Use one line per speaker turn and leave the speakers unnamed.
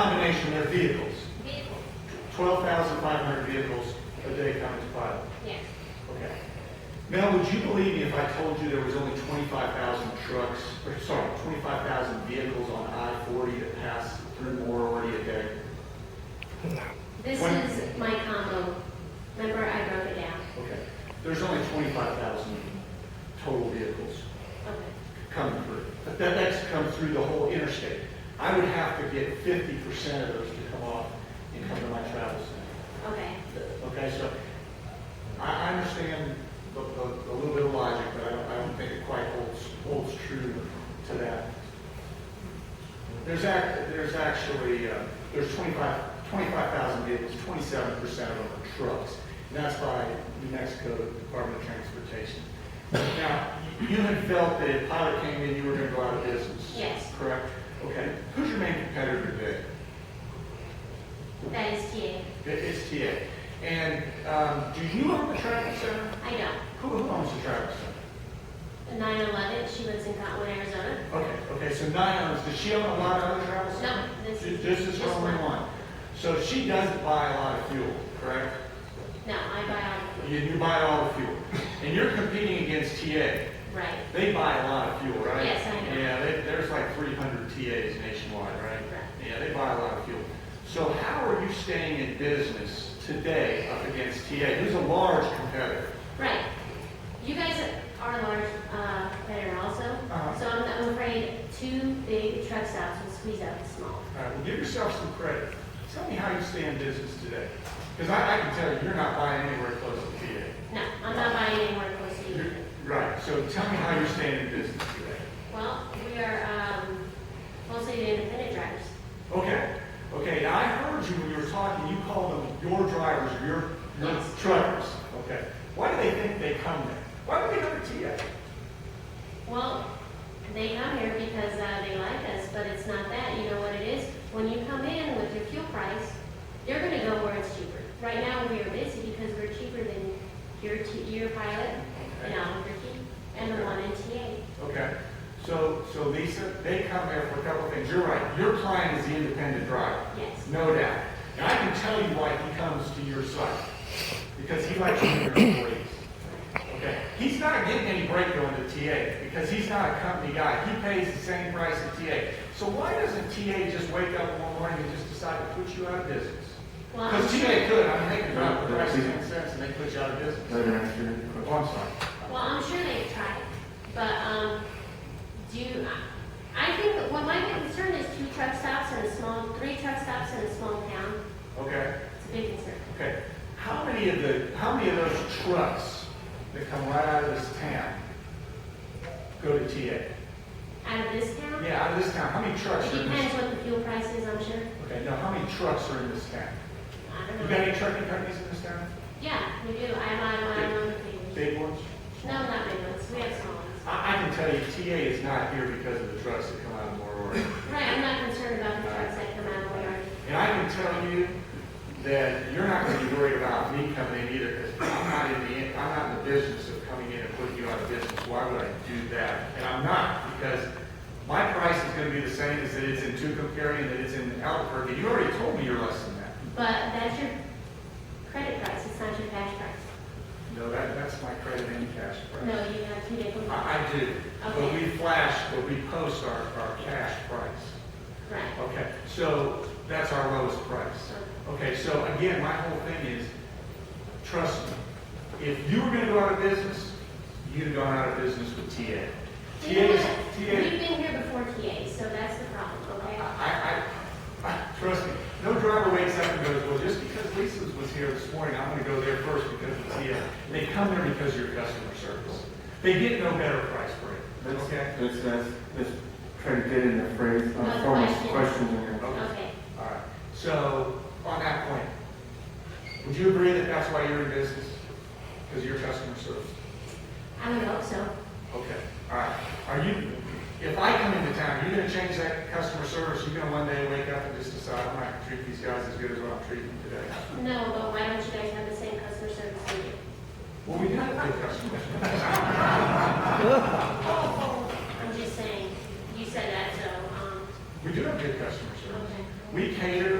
combination, their vehicles,
Vehicle,
twelve thousand five hundred vehicles a day come into Pilot.
yes.
Okay. Mel, would you believe me if I told you there was only twenty-five thousand trucks, or sorry, twenty-five thousand vehicles on I forty that pass through Aurora a day?
This
When-
is my combo. Remember, I wrote it down.
Okay. There's only twenty-five thousand total vehicles.
Okay.
coming through. But that that's come through the whole interstate. I would have to get fifty percent of those to come off and come to my travel center.
Okay.
Okay, so I, I understand the, the, the little bit of logic, but I don't, I don't think it quite holds, holds true to that. There's act, there's actually, uh, there's 25 25,000 vehicles, twenty-seven percent of them are trucks. And that's by New Mexico Department of Transportation. Now, you had felt that if Pilot came in, you were gonna go out of business.
Yes.
Correct? Okay. Who's your main competitor today?
That is TA.
It- It's TA. And, um, do you own the travel center?
I know.
Who who owns the travel center?
9/11, she lives in Cottonwood, Arizona.
Okay, okay, so Nye owns, does she own a lot of other travel centers?
No, this
Ju-
is.
This is her
just
only one. So she doesn't buy a lot of fuel, correct?
No, I buy
You, you buy all the fuel. And you're competing against TA.
all, right,
They buy a lot of fuel, right?
Yes, I know.
Yeah, they, there's like three hundred TAs nationwide, right?
Correct.
Yeah, they buy a lot of fuel. So how are you staying in business today up against TA, who's a large competitor?
right. You guys are a large uh, better also,
Uh-huh.
so I'm I'm afraid two big truck stops will squeeze out the small.
All right, well, give yourself some credit. Tell me how you stay in business today. Because I, I can tell you, you're not buying anywhere close to TA.
No, I'm not buying anywhere close to you.
Right, so tell me how you're staying in business today.
Well, we are um, mostly the independent drivers.
Okay, okay, now I heard you when you were talking, you called them your drivers, or your, your
Yes.
truckers. Okay, why do they think they come there? Why do they come to TA?
Well, they come here because uh, they like us, but it's not that. You know what it is? When you come in with your fuel price, you're gonna go where it's cheaper. Right now, we are busy because we're cheaper than your, T- your pilot in Albuquerque and the one in TA.
Okay, so, so Lisa, they come there for a couple of things. You're right, your client is the independent driver.
Yes,
No doubt. And I can tell you why he comes to your site, because he likes your employees. Okay, he's not getting any break going to TA, because he's not a company guy. He pays the same price as TA. So why doesn't TA just wake up one morning and just decide to put you out of business?
well, I'm
Because TA
sure,
could, I mean, they could drop the price ten cents and they put you out of business.
Better answer your
Oh,
question.
I'm sorry.
well, I'm sure they've tried, but, um, do, you- I I think, that what my big concern is two truck stops in a small, three truck stops in a small town.
Okay,
It's a big concern.
okay. How many of the, how many of those trucks that come right out of this town go to TA?
Out of this town?
Yeah, out of this town, how many trucks
It
are in this?
depends what the fuel price is, I'm sure.
Okay, now how many trucks are in this town?
I
You
don't
got
know.
any trucking companies in this town?
Yeah, we do. I buy my own things.
Big ones?
No, not big ones. We have small ones.
I, I can tell you, TA is not here because of the trucks that come out of Aurora.
Right, I'm not concerned about the trucks that come out of Warren.
And I can tell you that you're not gonna be worried about me coming in either, because I'm not in the, I'm not in the business of coming in and putting you out of business. Why would I do that? And I'm not, because my price is gonna be the same as it is in Tucumcari and that it's in Albuquerque. You already told me you're less than that.
But that's your credit price, it's not your cash price.
No, that, that's my credit and cash price.
No, you have two different, right.
I I do, but we flash, but we post our, our cash price. Okay, so that's our lowest price. Okay, so again, my whole thing is, trust me, if you were gonna go out of business, you'd have gone out of business with TA.
You know
TA's,
what? We've
TA,
been here before TA, so that's the problem,
I,
okay?
I, I, trust me, no driver wakes up and goes, well, just because Lisa's was here this morning, I'm gonna go there first because of TA. They come there because of your customer service. They get no better price for it,
That's,
okay?
that's, that's, that's trying to get in the phrase,
No
uh, form of
question.
question here.
Okay,
All right, so on that point, would you agree that that's why you're in business? Because of your customer service?
I would hope so.
Okay, all right. Are you, if I come into town, are you gonna change that customer service? You're gonna one day wake up and just decide, I'm not gonna treat these guys as good as what I'm treating them today?
No, but why don't you guys have the same customer service we do?
Well, we have good customers.
I'm just saying, you said that, so, um,
We do have good customer service.
okay.
we cater